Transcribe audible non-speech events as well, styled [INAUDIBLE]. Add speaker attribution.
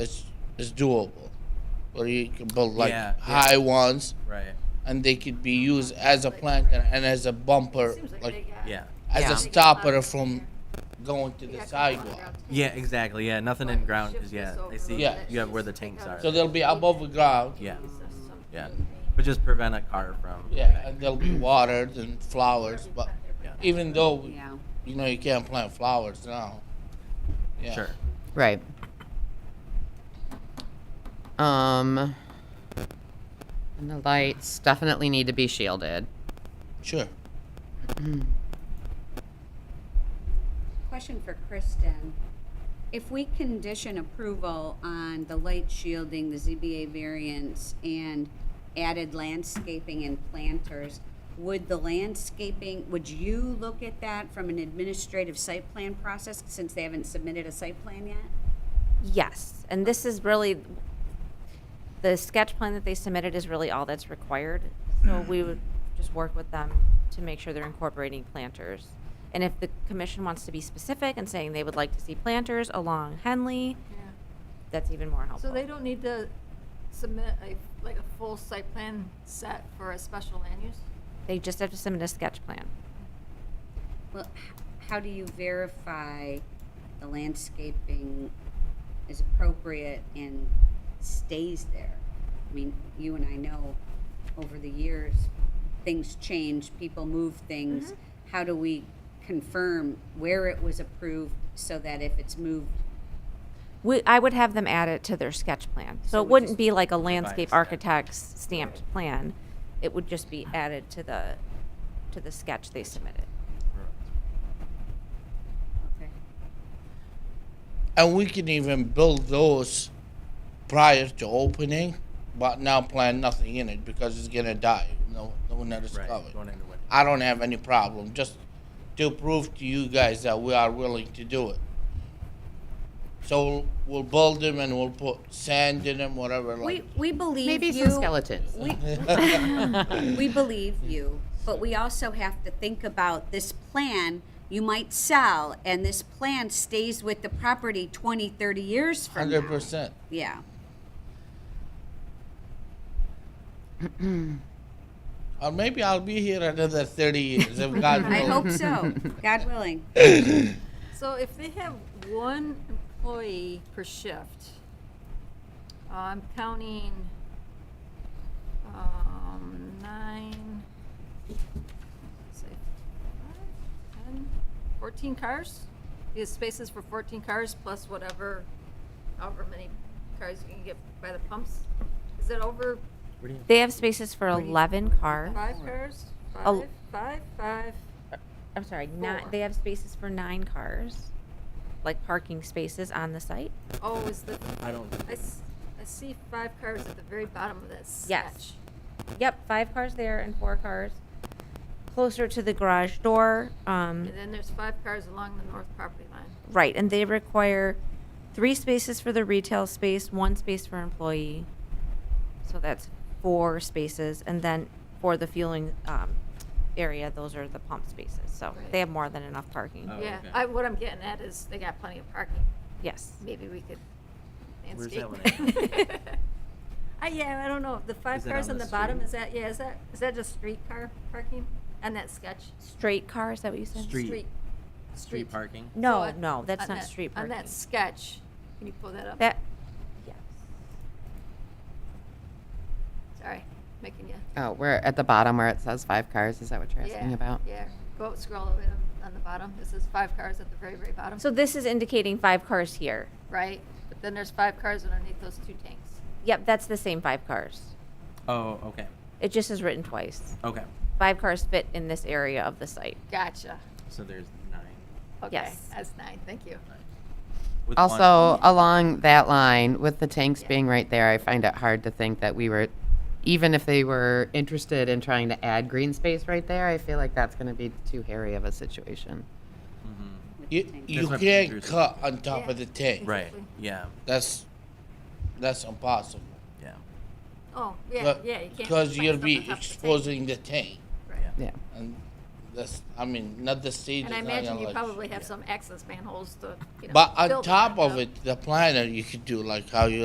Speaker 1: it's it's doable, where you can build like
Speaker 2: Yeah, yeah.
Speaker 1: high ones,
Speaker 2: Right.
Speaker 1: and they could be used as a planter and as a bumper,
Speaker 3: Seems like,
Speaker 1: like
Speaker 3: they
Speaker 2: Yeah.
Speaker 3: got-
Speaker 1: as
Speaker 4: Yeah.
Speaker 1: a stopper from going to the sidewalk.
Speaker 2: Yeah. Exactly. Yeah. Nothing in
Speaker 3: But
Speaker 2: ground
Speaker 3: shift
Speaker 2: is yeah.
Speaker 3: this over
Speaker 2: I
Speaker 3: a
Speaker 2: see.
Speaker 1: little
Speaker 3: bit,
Speaker 2: You have where
Speaker 3: just
Speaker 2: the
Speaker 3: pick
Speaker 2: tanks
Speaker 3: up
Speaker 2: are.
Speaker 3: the
Speaker 1: So they'll be above the ground,
Speaker 2: Yeah.
Speaker 3: pieces or something.
Speaker 2: Yeah. But just prevent a car from.
Speaker 1: yeah, and they'll be watered and flowers. But
Speaker 2: Yeah.
Speaker 1: even though
Speaker 5: Yeah.
Speaker 1: you know you can't plant flowers now, yeah,
Speaker 2: Sure.
Speaker 4: Right. Um, and the lights definitely need to be shielded.
Speaker 1: sure.
Speaker 5: Question for Kristen. If we condition approval on the light shielding, the ZBA variance, and added landscaping and planters, would the landscaping, would you look at that from an administrative site plan process, since they haven't submitted a site plan yet?
Speaker 3: Yes, and this is really, the sketch plan that they submitted is really all that's required. So we would just work with them to make sure they're incorporating planters. And if the commission wants to be specific and saying they would like to see planters along Henley, that's even more helpful.
Speaker 6: So they don't need to submit a, like a full site plan set for a special land use?
Speaker 3: They just have to submit a sketch plan.
Speaker 5: Well, h- how do you verify the landscaping is appropriate and stays there? I mean, you and I know over the years, things change, people move
Speaker 4: Mm-hmm.
Speaker 5: things. How do we confirm where it was approved so that if it's moved,
Speaker 3: We, I would have them add it to their sketch plan. So
Speaker 5: So
Speaker 3: it
Speaker 5: we
Speaker 3: wouldn't
Speaker 5: just-
Speaker 3: be like a landscape
Speaker 2: step.
Speaker 3: architect's stamped plan. It would just be added to the, to the sketch they submitted.
Speaker 5: okay?
Speaker 1: And we can even build those prior to opening, but now plant nothing in it because it's gonna die. No, no one that is
Speaker 2: Right.
Speaker 1: covered.
Speaker 2: Going into winter.
Speaker 1: I don't have any problem. Just to prove to you guys that we are willing to do it. So we'll build them and we'll put sand in them, whatever.
Speaker 5: We,
Speaker 1: Like,
Speaker 5: we believe you.
Speaker 4: Maybe some skeletons.
Speaker 5: We, [LAUGHS] we believe you, but we also have to think about this plan you might sell, and this plan stays with the property 20, 30 years from now.
Speaker 1: hundred percent.
Speaker 5: Yeah.
Speaker 1: Or maybe I'll be here another thirty years if
Speaker 6: [LAUGHS]
Speaker 1: God
Speaker 5: I
Speaker 1: willing.
Speaker 5: hope so, God willing.
Speaker 6: So if they have one employee per shift, I'm counting, um, nine, say, five, ten, fourteen cars? Because spaces for fourteen cars plus whatever, however many cars you can get by the pumps. Is it over
Speaker 3: They have spaces for eleven cars.
Speaker 6: Five cars?
Speaker 3: Oh.
Speaker 6: Five, five, five.
Speaker 3: I'm sorry, nine,
Speaker 6: Four.
Speaker 3: they have spaces for nine cars, like parking spaces on the site.
Speaker 6: Oh, is the,
Speaker 2: I don't.
Speaker 6: I, s- I see five cars at the very bottom of that sketch.
Speaker 3: Yes. Yep, five cars there and four cars closer to the garage door. Um,
Speaker 6: And then there's five cars along the north property line.
Speaker 3: right, and they require three spaces for the retail space, one space for employee. So that's four spaces, and then for the fueling, um, area, those are the pump spaces. So
Speaker 6: Right.
Speaker 3: they have more than enough parking.
Speaker 2: Oh,
Speaker 6: Yeah,
Speaker 2: okay.
Speaker 6: I, what I'm getting at is they got plenty of parking.
Speaker 3: Yes.
Speaker 6: Maybe we could
Speaker 2: Where's
Speaker 6: landscape.
Speaker 2: that
Speaker 6: that? [LAUGHS] I, yeah, I don't know. The five
Speaker 2: Is that
Speaker 6: cars
Speaker 2: on
Speaker 6: on
Speaker 2: the
Speaker 6: the bottom,
Speaker 2: street?
Speaker 6: is that, yeah, is that, is that just street car parking on that sketch?
Speaker 3: Straight car, is that what you said?
Speaker 2: Street.
Speaker 6: Street.
Speaker 2: Street parking.
Speaker 3: No,
Speaker 6: So,
Speaker 3: no, that's
Speaker 6: on
Speaker 3: not
Speaker 6: that-
Speaker 3: street
Speaker 6: On
Speaker 3: parking.
Speaker 6: that sketch, can you pull that up?
Speaker 3: That, yes.
Speaker 6: Sorry, making you.
Speaker 4: Oh, we're at the bottom where it says five cars. Is that what you're asking
Speaker 6: Yeah,
Speaker 4: about?
Speaker 6: Yeah, go scroll over to- on the bottom. This is five cars at the very, very bottom,
Speaker 3: So this is indicating five cars here.
Speaker 6: right? But then there's five cars underneath those two tanks.
Speaker 3: Yep, that's the same five cars.
Speaker 2: Oh. Okay.
Speaker 3: It just is written twice.
Speaker 2: Okay.
Speaker 3: Five cars fit in this area of the site.
Speaker 6: Gotcha.
Speaker 2: So there's nine.
Speaker 6: Okay,
Speaker 3: Yes.
Speaker 6: that's nine, thank you.
Speaker 2: With one-
Speaker 4: Also, along that line, with the tanks being right there, I find it hard to think that we were, even if they were interested in trying to add green space right there, I feel like that's going to be too hairy of a situation.
Speaker 1: You, you
Speaker 2: what
Speaker 1: can't
Speaker 2: Peter's-
Speaker 1: cut on top of the tank.
Speaker 2: Right. Yeah.
Speaker 1: That's that's impossible.
Speaker 2: Yeah.
Speaker 6: Oh, yeah, yeah, you can't.
Speaker 1: Because
Speaker 6: plant
Speaker 1: you'll
Speaker 6: stuff on
Speaker 1: be
Speaker 6: top of the tank.
Speaker 1: exposing the tank,
Speaker 6: Right.
Speaker 4: Yeah.
Speaker 1: and That's, I mean, not the stage.
Speaker 6: And I
Speaker 1: is not
Speaker 6: imagine
Speaker 1: gonna
Speaker 6: you
Speaker 1: let
Speaker 6: probably have
Speaker 1: yeah.
Speaker 6: some access manholes to, you know.
Speaker 1: But on
Speaker 6: build it
Speaker 1: top
Speaker 6: back
Speaker 1: of
Speaker 6: up.
Speaker 1: it, the planner, you could do like how you